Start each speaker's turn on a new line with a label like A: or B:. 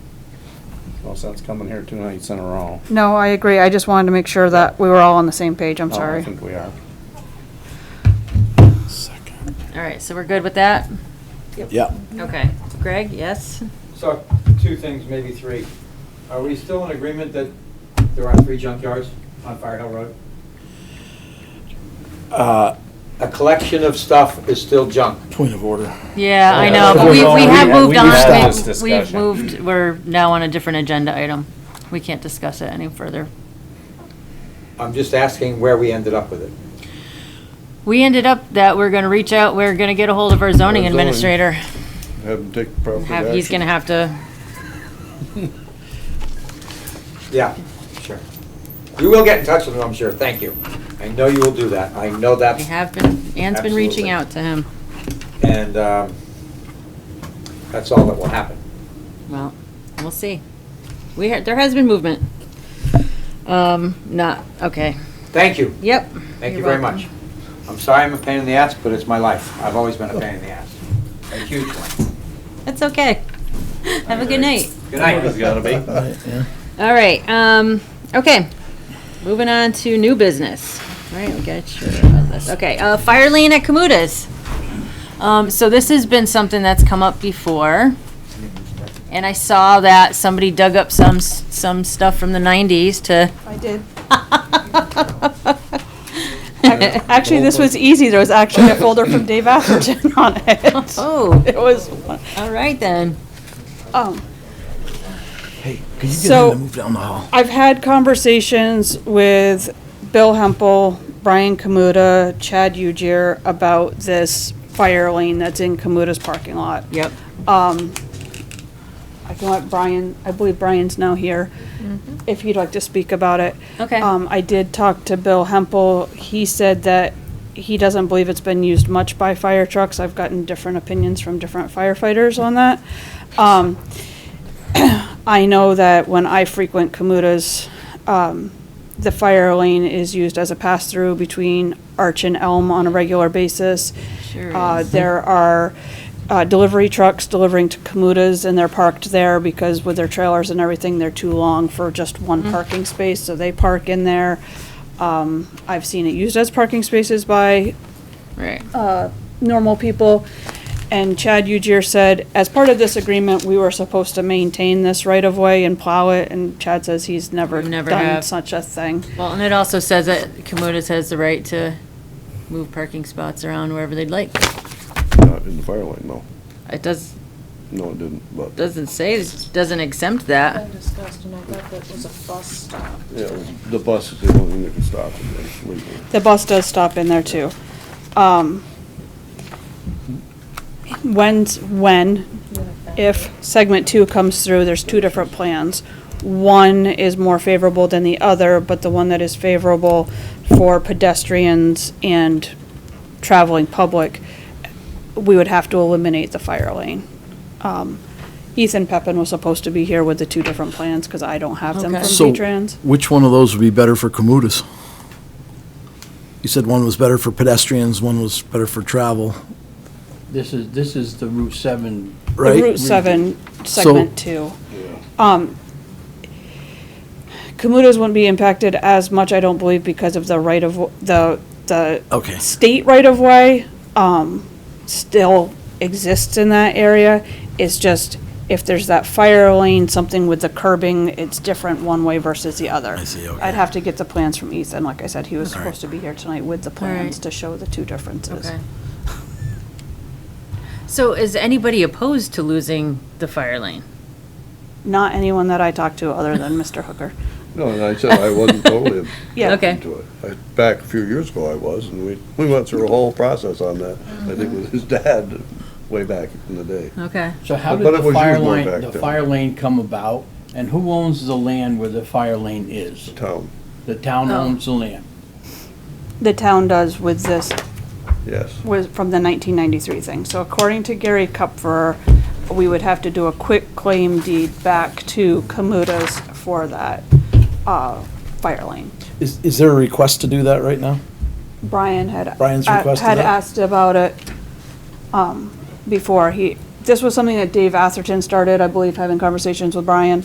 A: No sense coming here two nights in a row.
B: No, I agree. I just wanted to make sure that we were all on the same page. I'm
A: No, I
B: sorry.
A: think we are.
C: All right, so we're good with that?
D: Yeah.
C: Okay. Greg, yes?
E: So, two things, maybe three. Are we still in agreement that there are three junkyards on Fire Hill Road?
D: Uh,
E: A collection of stuff is still junk.
D: Point of order.
C: Yeah, I
A: Yeah,
C: know,
A: that's
C: but
A: what
C: we,
A: we're
C: we
A: going-
C: have
A: we-
C: moved
A: we
C: on.
A: stopped
C: We've-
A: this
C: We've
A: discussion.
C: moved, we're now on a different agenda item. We can't discuss it any further.
E: I'm just asking where we ended up with it.
C: We ended up that we're gonna reach out, we're gonna get a hold of our zoning
F: zoning.
C: administrator.
F: Have him take appropriate
C: Have, he's
F: action.
C: gonna have to,
E: Yeah, sure. You will get in touch with them, I'm sure, thank you. I know you will do that, I know
C: we
E: that's,
C: have been, Ann's been reaching
E: Absolutely.
C: out to him.
E: and um, that's all that will happen.
C: Well, we'll see. We, ha- there has been movement. Um, not, okay.
E: Thank you,
C: Yep.
E: thank you
C: You're
E: very
C: welcome.
E: much. I'm sorry I'm a pain in the ass, but it's my life. I've always been a pain in the ass. A huge one.
C: That's okay. Have a good night.
E: Good night.
A: gotta be.
C: All right, um, okay. Moving on to new business. All right, we got sure about this. Okay, uh, fire lane at Kamuta's. Um, so this has been something that's come up before. And I saw that somebody dug up some, s- some stuff from the nineties to.
B: I did. Actually, this was easy. There was actually a folder from Dave Atherton on it.
C: Oh,
B: It was,
C: all right then.
B: um,
D: Hey, could you get
B: So-
D: him to move down the hall?
B: I've had conversations with Bill Hempel, Brian Kamuta, Chad Ujier about this fire lane that's in Kamuta's parking lot.
C: Yep.
B: I can let Brian, I believe Brian's now here, if he'd like to speak about it.
C: Okay.
B: Um, I did talk to Bill Hempel. He said that he doesn't believe it's been used much by fire trucks. I've gotten different opinions from different firefighters on that. Um, I know that when I frequent Kamuta's, um, the fire lane is used as a pass-through between Arch and Elm on a regular basis.
C: Sure
B: Uh,
C: is.
B: There are uh, delivery trucks delivering to Kamuta's, and they're parked there because with their trailers and everything, they're too long for just one
C: Mm-hmm.
B: parking space, so they park in there. Um, I've seen it used as parking spaces by
C: Right.
B: normal people. And Chad Ujier said, as part of this agreement, we were supposed to maintain this right-of-way and plow it, and Chad says he's never
C: We never
B: done
C: have.
B: such a thing.
C: Well, and it also says that Kamuta's has the right to move parking spots around wherever they'd like.
F: Not in the fire lane, though.
C: It does,
F: No, it didn't, but,
C: doesn't say, it doesn't exempt that.
G: been discussed, and I thought that was a bus stop.
F: yeah, the bus is the only thing that can stop it, then, legally.
B: The bus does stop in there too. Um, When's, when, if segment two comes through, there's two different plans. One is more favorable than the other, but the one that is favorable for pedestrians and traveling public, we would have to eliminate the fire lane. Um, Ethan Peppin was supposed to be here with the two different plans, because I don't have them from
C: Okay.
D: So,
B: V-Trans.
D: which one of those would be better for commuters? You said one was better for pedestrians, one was better for travel,
H: This is, this is the Route 7.
D: right?
B: Route seven,
D: So-
B: segment two. Um, Kamuta's wouldn't be impacted as much, I don't believe, because of the right of, the, the
D: Okay.
B: state right of way, um, still exists in that area. It's just, if there's that fire lane, something with the curbing, it's different one way versus the other.
D: I see, okay.
B: I'd have to get the plans from Ethan, like I said, he was
D: All right.
B: supposed to be here tonight with the
C: right.
B: plans to show the two differences.
C: Okay. So is anybody opposed to losing the fire lane?
B: Not anyone that I talked to other than Mr. Hooker.
F: No, and I said I wasn't totally
B: Yeah.
C: Okay.
F: into it. I- Back a few years ago, I was, and we, we went through a whole process on that, I think with his dad, way back in the day.
C: Okay.
H: So how
F: But
H: did
F: it was
H: the
F: used
H: fire
F: way
H: lane,
F: back
H: the
F: then.
H: fire lane come about? And who owns the land where the fire lane is?
F: Town,
H: The town
C: Oh.
H: owns the land.
B: The town does with this
F: yes.
B: was from the 1993 thing. So according to Gary Kupfer, we would have to do a quick claim deed back to Kamuta's for that uh, fire lane.
D: Is, is there a request to do that right now?
B: Brian had.
D: Brian's
B: uh,
D: requested
B: Had
D: that?
B: asked about it um, before. He, this was something that Dave Atherton started, I believe, having conversations with Brian.